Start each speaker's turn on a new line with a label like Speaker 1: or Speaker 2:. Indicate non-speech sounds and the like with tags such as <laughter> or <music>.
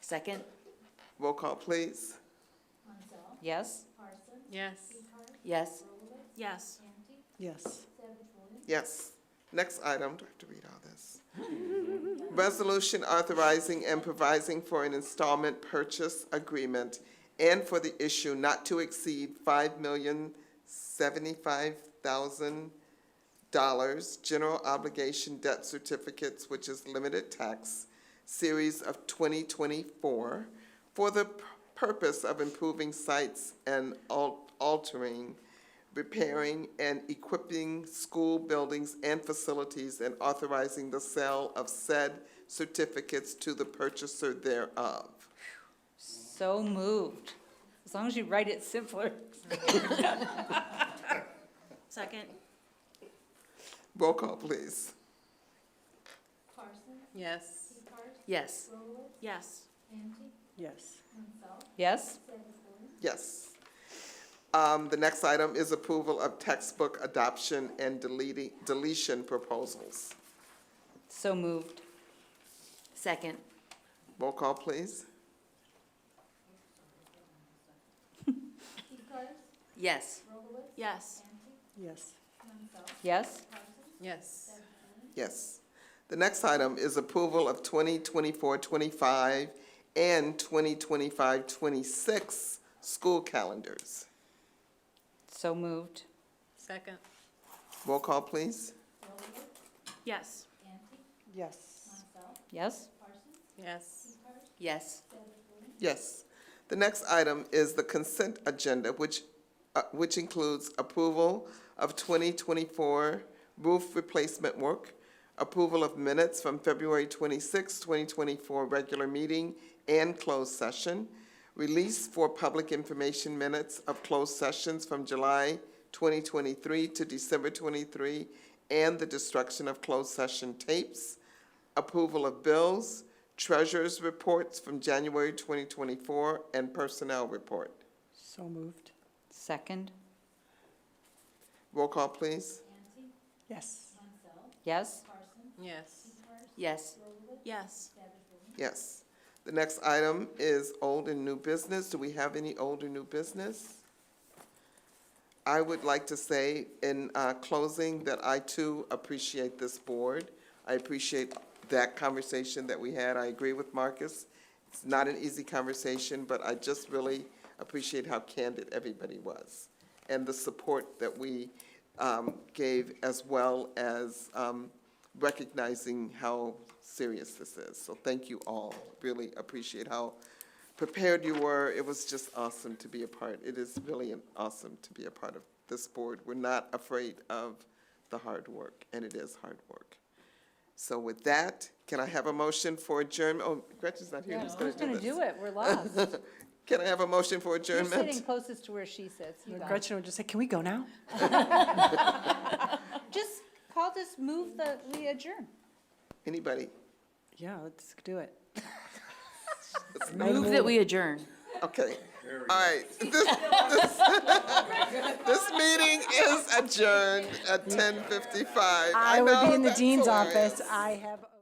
Speaker 1: Second,
Speaker 2: Roll call, please.
Speaker 1: yes?
Speaker 3: Yes.
Speaker 1: Yes.
Speaker 3: Yes.
Speaker 4: Yes.
Speaker 2: Yes. Next item, do I have to read all this? <laughs> Resolution authorizing and provising for an installment purchase agreement and for the issue not to exceed five million seventy-five thousand dollars general obligation debt certificates, which is limited tax, series of twenty twenty-four, for the p- purpose of improving sites and al- altering, repairing, and equipping school buildings and facilities, and authorizing the sale of said certificates to the purchaser thereof.
Speaker 1: So moved. As long as you write it <laughs> simpler.
Speaker 3: Second?
Speaker 2: Roll call, please.
Speaker 3: Yes.
Speaker 1: Yes.
Speaker 3: Yes.
Speaker 4: Yes.
Speaker 1: Yes?
Speaker 2: Yes. Um, the next item is approval of textbook adoption and deleting, deletion proposals.
Speaker 1: So moved. Second,
Speaker 2: Roll call, please.
Speaker 1: yes?
Speaker 3: Yes.
Speaker 4: Yes.
Speaker 1: Yes?
Speaker 3: Yes.
Speaker 2: Yes. The next item is approval of 2024-25 and 2025-26 school calendars.
Speaker 1: So moved.
Speaker 3: Second?
Speaker 2: Roll call, please.
Speaker 3: Yes.
Speaker 4: Yes.
Speaker 1: Yes?
Speaker 3: Yes.
Speaker 1: Yes.
Speaker 2: Yes. The next item is the consent agenda, which, uh, which includes approval of twenty twenty-four roof replacement work, approval of minutes from February 26, twenty twenty-four regular meeting and closed session, release for public information minutes of closed sessions from July twenty twenty-three to December twenty-three, and the destruction of closed session tapes, approval of bills, treasurer's reports from January 2024, and personnel report.
Speaker 4: So moved.
Speaker 1: Second,
Speaker 2: Roll call, please.
Speaker 4: Yes.
Speaker 1: yes?
Speaker 3: Yes.
Speaker 1: Yes.
Speaker 3: Yes.
Speaker 2: Yes. The next item is old and new business. Do we have any old or new business? I would like to say in uh, closing that I too appreciate this board. I appreciate that conversation that we had. I agree with Marcus. It's not an easy conversation, but I just really appreciate how candid everybody was and the support that we um, gave as well as um, recognizing how serious this is. So thank you all. Really appreciate how prepared you were. It was just awesome to be a part. It is really an awesome to be a part of this board. We're not afraid of the hard work, and it is hard work. So with that, can I have a motion for adjournment? Oh, Gretchen's not here.
Speaker 1: Yeah,
Speaker 2: Who's going
Speaker 1: Who's
Speaker 2: to do
Speaker 1: gonna
Speaker 2: this?
Speaker 1: do it? We're <laughs> lost.
Speaker 2: Can I have a motion for
Speaker 1: You're sitting
Speaker 2: adjournment?
Speaker 1: closest to where she sits. You got it.
Speaker 4: Gretchen would just say, can we go now?
Speaker 1: Just, Paul, just move the, we adjourn.
Speaker 2: Anybody?
Speaker 4: Yeah, let's do it.
Speaker 1: Move that we adjourn.
Speaker 2: Okay. All right.
Speaker 1: <laughs>
Speaker 2: This, this- this <laughs> meeting is adjourned at ten fifty-five.
Speaker 4: I would be in the dean's office. I have.